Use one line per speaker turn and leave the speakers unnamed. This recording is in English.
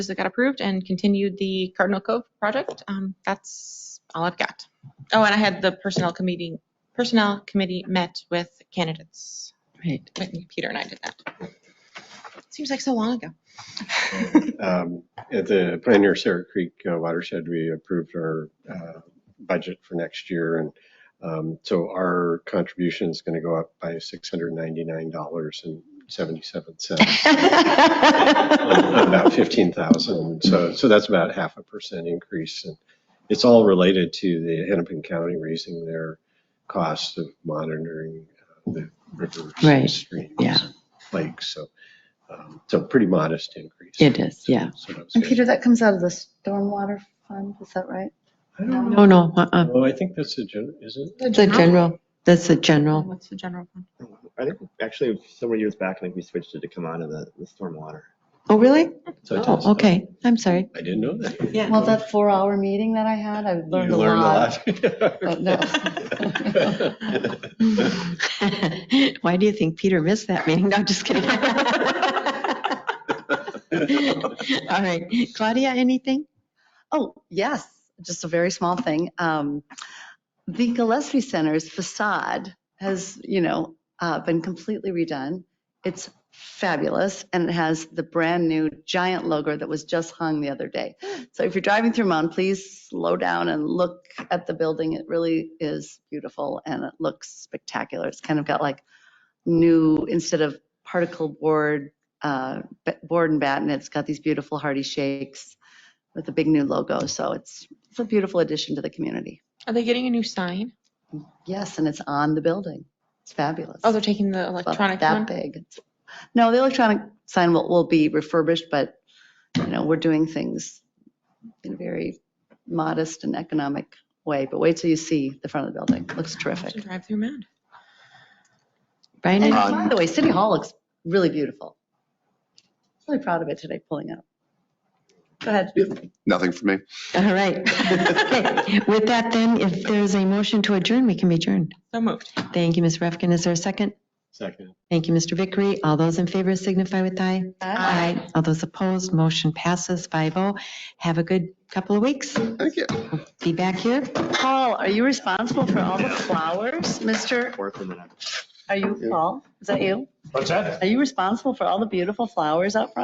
that got approved and continued the Cardinal Cove project. Um, That's all I've got. Oh, and I had the Personnel Committee, Personnel Committee met with candidates.
Right.
Whitney, Peter and I did that. Seems like so long ago.
Um, At the Pioneer Sarah Creek uh, watershed, we approved our uh, budget for next year. And um, so our contribution is going to go up by $699.77, on about 15,000. So, so that's about half a percent increase. And it's all related to the Hennepin County raising their cost of monitoring uh, the rivers,
Right.
and streams,
Yeah.
lakes. So, um, so pretty modest increase.
It is, yeah.
So that was
And
good.
Peter, that comes out of the stormwater fund, is that right?
I don't
No, no, uh-uh.
Oh, I think that's a gen, is it?
It's a general, that's a general.
What's the general fund?
I think actually several years back, I think we switched it to come out of the, the stormwater.
Oh, really?
So it does.
Oh, okay. I'm sorry.
I didn't know that.
Yeah.
Well, that four-hour meeting that I had, I
You
learned a lot.
a
but no.
Why do you think Peter missed that meeting? No, just kidding. All right. Claudia, anything?
Oh, yes, just a very small thing. Um, The Gillespie Center's facade has, you know, uh, been completely redone. It's fabulous, and it has the brand-new giant logo that was just hung the other day. So if you're driving through Mound, please slow down and look at the building. It really is beautiful, and it looks spectacular. It's kind of got like new, instead of particle board, uh, ba- board and batten, it's got these beautiful hardy shakes with a big new logo. So it's, it's a beautiful addition to the community.
Are they getting a new sign?
Yes, and it's on the building. It's fabulous.
Oh, they're taking the
About
electronic
That
one?
big. It's- No, the electronic sign will, will be refurbished, but, you know, we're doing things in a very modest and economic way. But wait till you see the front of the building. Looks terrific.
Drive through mound.
Brian,
And
any-
by the way, City Hall looks really beautiful. Really proud of it today, pulling up. Go ahead.
Nothing for me.
all right. Okay. With that then, if there's a motion to adjourn, we can be adjourned.
So moved.
Thank you, Ms. Refkin. Is there a second?
Second.
Thank you, Mr. Vickery. All those in favor signify with aye. Aye. All those opposed, motion passes 5-0. Have a good couple of weeks.
Thank you.
Be back here.
Paul, are you responsible for all the flowers, Mr.?
Or for the next.
Are you, Paul? Is that you?
What's that?
Are you responsible for all the beautiful flowers out front?